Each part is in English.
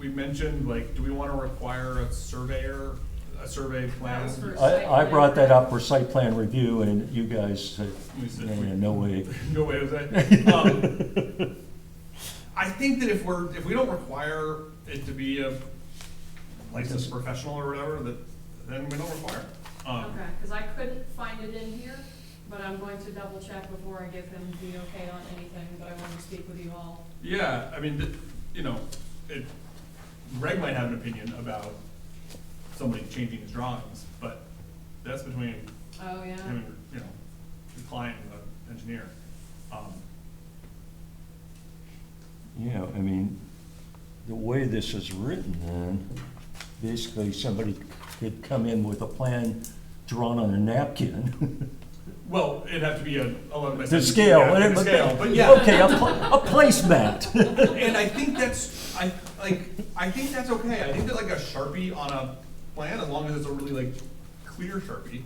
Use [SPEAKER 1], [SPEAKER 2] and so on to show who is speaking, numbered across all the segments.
[SPEAKER 1] mentioned, like, do we wanna require a surveyor, a survey plan?
[SPEAKER 2] That was for-
[SPEAKER 3] I, I brought that up for site plan review and you guys said,
[SPEAKER 1] We said
[SPEAKER 3] no,
[SPEAKER 1] we-
[SPEAKER 3] no way.
[SPEAKER 1] No way was that. Um, I think that if we're, if we don't require it to be a licensed professional or whatever, that, then we don't require. it. Um,
[SPEAKER 2] Okay, because I couldn't find it in here, but I'm going to double check before I give him the okay on anything, but I wanted to speak with you all.
[SPEAKER 1] yeah, I mean, th- you know, it, Greg might have an opinion about somebody changing his drawings, but that's between
[SPEAKER 2] Oh, yeah?
[SPEAKER 1] him and, you know, the client and the engineer. Um,
[SPEAKER 3] Yeah, I mean, the way this is written, then, basically somebody could come in with a plan drawn on a napkin.
[SPEAKER 1] Well, it'd have to be a eleven by
[SPEAKER 3] The
[SPEAKER 1] seventeen.
[SPEAKER 3] scale,
[SPEAKER 1] yeah,
[SPEAKER 3] whatever.
[SPEAKER 1] the scale, but yeah.
[SPEAKER 3] Okay, a, pla- a placemat.
[SPEAKER 1] And I think that's, I, like, I think that's okay, I think that like a Sharpie on a plan, as long as it's a really like clear Sharpie.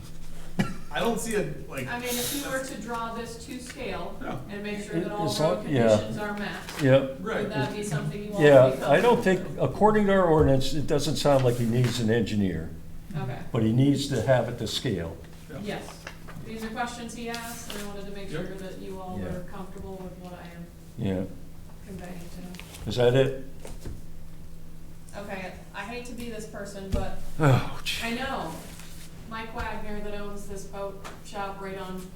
[SPEAKER 1] I don't see a, like,
[SPEAKER 2] I mean, if you were to draw this to scale
[SPEAKER 1] Yeah.
[SPEAKER 2] and make sure that all
[SPEAKER 3] It's all-
[SPEAKER 2] road
[SPEAKER 3] yeah.
[SPEAKER 2] conditions are met,
[SPEAKER 3] Yep.
[SPEAKER 1] right,
[SPEAKER 2] would that be something you all would be
[SPEAKER 3] Yeah, I don't think,
[SPEAKER 2] comfortable
[SPEAKER 3] according to our ordinance, it doesn't sound like he needs an engineer,
[SPEAKER 2] with? Okay,
[SPEAKER 3] but he needs to have it to scale.
[SPEAKER 1] yeah,
[SPEAKER 2] yes. These are questions he asked, and I wanted to make sure
[SPEAKER 1] Yep.
[SPEAKER 2] that you all
[SPEAKER 3] Yeah.
[SPEAKER 2] were comfortable with what I am
[SPEAKER 3] Yeah,
[SPEAKER 2] conveying to him.
[SPEAKER 3] is that it?
[SPEAKER 2] Okay, I hate to be this person, but
[SPEAKER 3] Oh, gee.
[SPEAKER 2] I know. Mike Wagner that owns this boat shop right on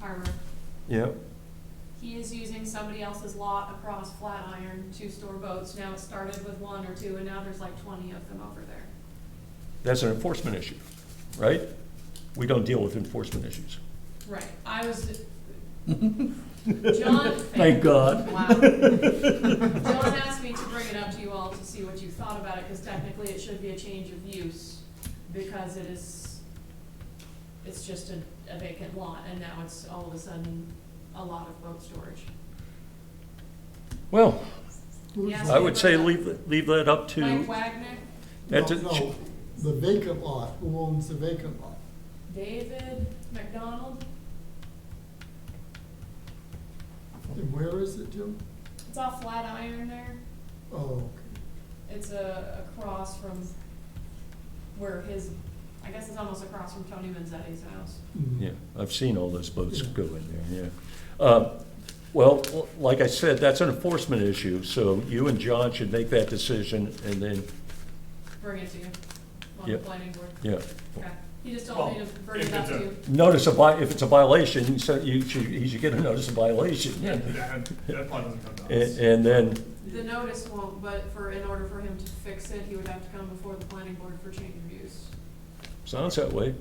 [SPEAKER 2] Harbor,
[SPEAKER 3] Yep,
[SPEAKER 2] he is using somebody else's lot across Flatiron to store boats. Now it started with one or two, and now there's like twenty of them over there.
[SPEAKER 3] that's an enforcement issue, right? We don't deal with enforcement issues.
[SPEAKER 2] Right, I was, John.
[SPEAKER 3] Thank God.
[SPEAKER 2] Wow. John asked me to bring it up to you all to see what you thought about it, because technically it should be a change of use, because it is, it's just a, a vacant lot, and now it's all of a sudden a lot of boat storage.
[SPEAKER 3] Well,
[SPEAKER 2] He asked
[SPEAKER 3] I
[SPEAKER 2] me
[SPEAKER 3] would
[SPEAKER 2] to
[SPEAKER 3] say
[SPEAKER 2] bring it
[SPEAKER 3] leave, it- leave that up
[SPEAKER 2] up. Mike
[SPEAKER 3] to,
[SPEAKER 2] Wagner,
[SPEAKER 3] that
[SPEAKER 4] No,
[SPEAKER 3] to-
[SPEAKER 4] no, The vacant lot, who owns the vacant lot?
[SPEAKER 2] David McDonald,
[SPEAKER 4] And where is it, Jim?
[SPEAKER 2] it's off Flatiron there,
[SPEAKER 4] Oh,
[SPEAKER 2] it's a, across from where his, I guess it's almost across from Tony Manzetti's house.
[SPEAKER 4] okay.
[SPEAKER 3] yeah, I've seen all those boats go in there, yeah. Uh, Well, like I said, that's an enforcement issue, so you and John should make that decision, and then,
[SPEAKER 2] Bring it to you on the
[SPEAKER 3] Yep.
[SPEAKER 2] planning board.
[SPEAKER 3] yeah.
[SPEAKER 2] Okay, he just told me to
[SPEAKER 1] Well,
[SPEAKER 2] bring it
[SPEAKER 1] if
[SPEAKER 2] up
[SPEAKER 1] it's
[SPEAKER 2] to
[SPEAKER 1] a-
[SPEAKER 2] you.
[SPEAKER 3] Notice of vi, if it's a violation, so you should, you should get a notice of violation.
[SPEAKER 1] that, that probably doesn't come to us.
[SPEAKER 3] And, and then,
[SPEAKER 2] The notice won't, but for, in order for him to fix it, he would have to come before the planning board for change of use.
[SPEAKER 3] sounds that way,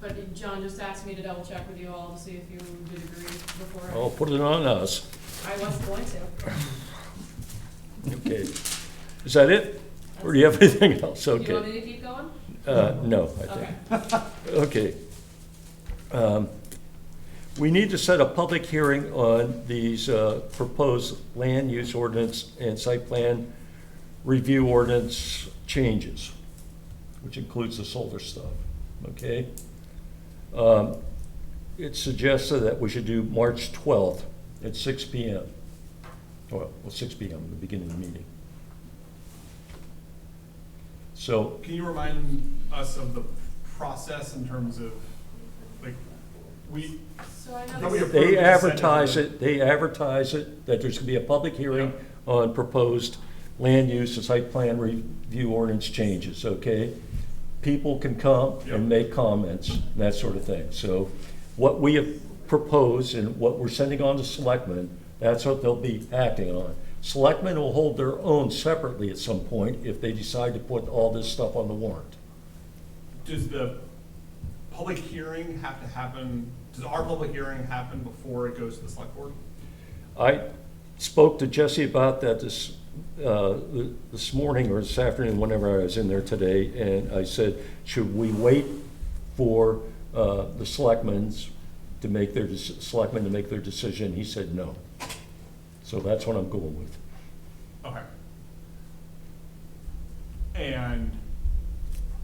[SPEAKER 2] But John just asked me to double check with you all to see if you did agree before. I-
[SPEAKER 3] I'll put it on us.
[SPEAKER 2] I was going to.
[SPEAKER 3] Okay. Is that it? Or do you have anything else?
[SPEAKER 2] You want
[SPEAKER 3] Okay.
[SPEAKER 2] me to keep going?
[SPEAKER 3] Uh, no, I think.
[SPEAKER 2] Okay,
[SPEAKER 3] Okay. Um, We need to set a public hearing on these uh, proposed land use ordinance and site plan review ordinance changes, which includes the solar stuff, okay? Um, It suggested that we should do March 12th at 6 PM. Well, well, 6 PM, the beginning of the meeting. So
[SPEAKER 1] Can you remind us of the process in terms of, like, we,
[SPEAKER 2] so I
[SPEAKER 1] Now we
[SPEAKER 2] know,
[SPEAKER 1] have-
[SPEAKER 3] They advertise it, they advertise it, that there's gonna be a public hearing on proposed land use and site plan review ordinance changes, okay? People can come
[SPEAKER 1] Yeah.
[SPEAKER 3] and make comments, that sort of thing. So what we have proposed and what we're sending on to selectmen, that's what they'll be acting on. Selectmen will hold their own separately at some point if they decide to put all this stuff on the warrant.
[SPEAKER 1] does the public hearing have to happen, does our public hearing happen before it goes to the select board?
[SPEAKER 3] I spoke to Jesse about that this, uh, th- this morning or this afternoon, whenever I was in there today, and I said, should we wait for uh, the selectmen's to make their, dec- selectmen to make their decision? He said no. So that's what I'm going with.
[SPEAKER 1] Okay. And